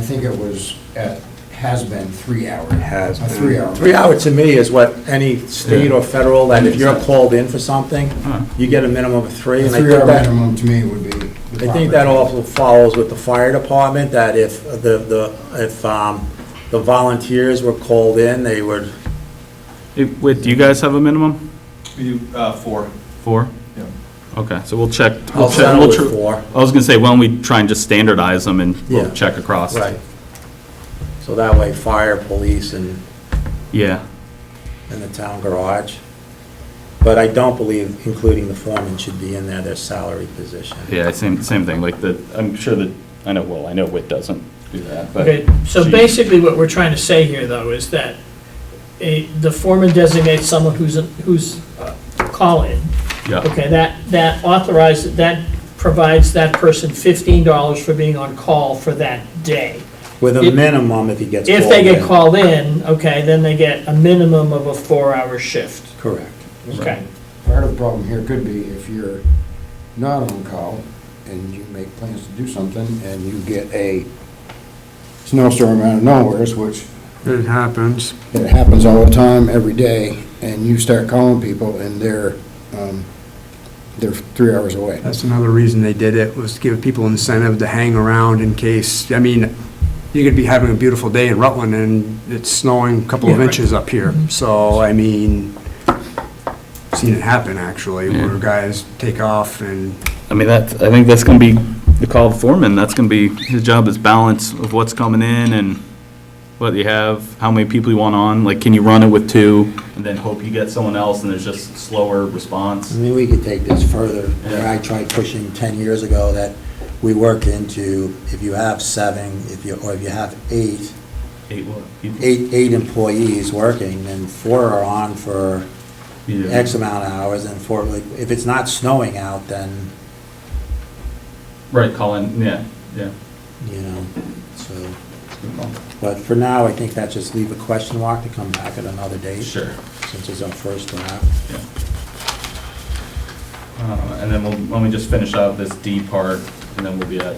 think it was, at has been three hour. Has A been. three hour. Three hours to me is what any state or federal, that if you're called in for something, you get a minimum of three. A and I think three hour that- minimum to me would be. the I think that proper. also follows with the fire department, that if the, the, if, um, the volunteers were called in, they would, It- Wait, do you guys have a minimum? We do uh, four. Four? Yeah. Okay, so we'll check. I'll we'll check- we'll settle with tr- four. I was gonna say, why don't we try and just standardize them and we'll Yeah. check across. Right. So that way, fire, police, and, Yeah, and the town garage. But I don't believe including the foreman should be in there, their salary position. yeah, same, same thing, like the, I'm sure that, I know, well, I know Whit doesn't do that, but. Okay, so she- basically what we're trying to say here, though, is that a, the foreman designates someone who's, a- who's uh, call-in. Yeah, Okay, that, that authorizes, that provides that person fifteen dollars for being on call for that day. With a If- minimum if he gets called in. If they get called in, okay, then they get a minimum of a four-hour shift. Correct. Okay, Part of the problem here could be if you're not on call and you make plans to do something and you get a snowstorm out of nowheres, which It happens. it happens all the time, every day, and you start calling people and they're, um, they're three hours away. That's another reason they did it, was to give people incentive to hang around in case, I mean, you could be having a beautiful day in Rutland and it's snowing a couple of Yeah, right. inches up here. Mm-hmm. So, I mean, seen it happen actually, where Yeah. guys take off and I mean, that, I think that's gonna be the call of foreman, that's gonna be, his job is balance of what's coming in and what you have, how many people you want on, like, can you run it with two? And then hope you get someone else and there's just slower I response. mean, we could take this further, where I tried pushing 10 years ago that we work into, if you have seven, if you, or if you have eight, Eight what? people? eight, eight employees working, then four are on for Yeah. X amount of hours, and four, like, if it's not snowing out, then, Right, Colin, yeah, yeah. you know, so. that's a good call. But for now, I think that just leave a question mark to come back at another date. Sure. Since it's our first draft. Yeah. Uh, And then we'll, let me just finish out this D part, and then we'll be at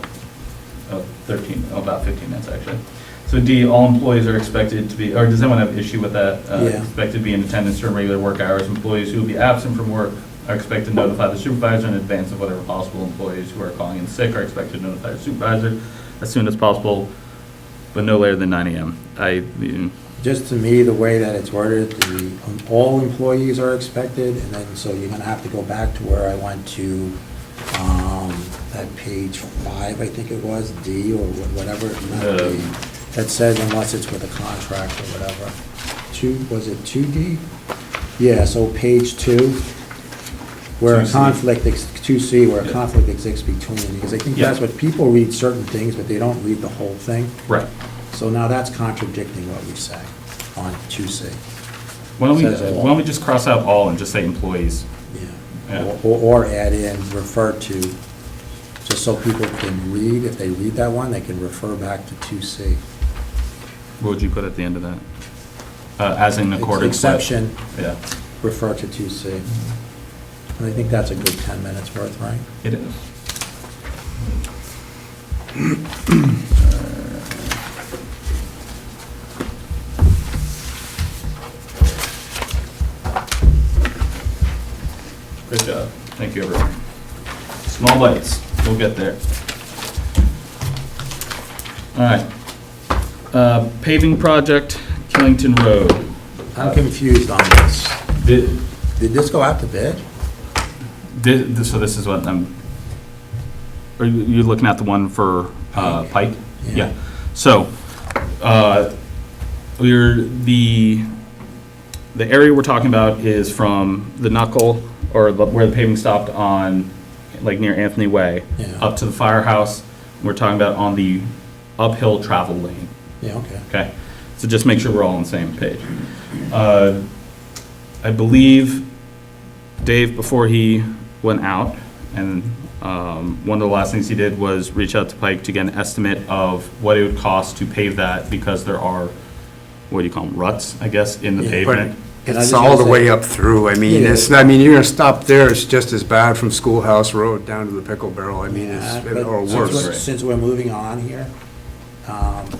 uh, 13, oh, about 15 minutes, actually. So D, all employees are expected to be, or does anyone have issue with that? Uh, Yeah. Expected to be in attendance during regular work hours. Employees who will be absent from work are expected to notify the supervisor in advance of whatever possible. Employees who are calling in sick are expected to notify their supervisor as soon as possible, but no later than 9 AM. I, mm, Just to me, the way that it's worded, the, um, all employees are expected, and then, so you're gonna have to go back to where I went to, um, that page five, I think it was, D or wha- whatever, not The- D, that says unless it's with a contract or whatever. Two, was it two D? Yeah, so page two, where a 2C. conflict, ex- two C, where a Yeah. conflict exists between, because I think Yeah. that's what, people read certain things, but they don't read the whole thing. right. So now that's contradicting what we say on 2C. Why don't we, Says all. why don't we just cross out all and just say employees? Yeah. Yeah. Or- Or or add in, refer to, just so people can read, if they read that one, they can refer back to 2C. What would you put at the end of that? Uh, As in accordance with? Exception, Yeah, refer to 2C. And I think that's a good 10 minutes worth, right? it is. Good job. Thank you, everyone. Small bites, we'll get there. All right. Uh, Paving project, Killington Road. I'm confused on this. Did- Did this go out to bid? Thi- thi- So this is what I'm, are you you're looking at the one for uh, Pike? Yeah. Yeah. So, uh, we're, the, the area we're talking about is from the knuckle, or the- where the paving stopped on, like near Anthony Way, Yeah. up to the firehouse. We're talking about on the uphill travel lane. Yeah, okay. Okay, so just make sure we're all on the same page. Uh, I believe Dave, before he went out, and um, one of the last things he did was reach out to Pike to get an estimate of what it would cost to pave that, because there are, what do you call them, ruts, I guess, in the Yeah. But pavement. And I just it's all wanna the say- way up through, I mean, Yeah. it's, I mean, you're gonna stop there, it's just as bad from Schoolhouse Road down to the Pickle Barrel, I mean, Yeah, it's, Uh, but or since we're- worse. Since we're moving on here, um,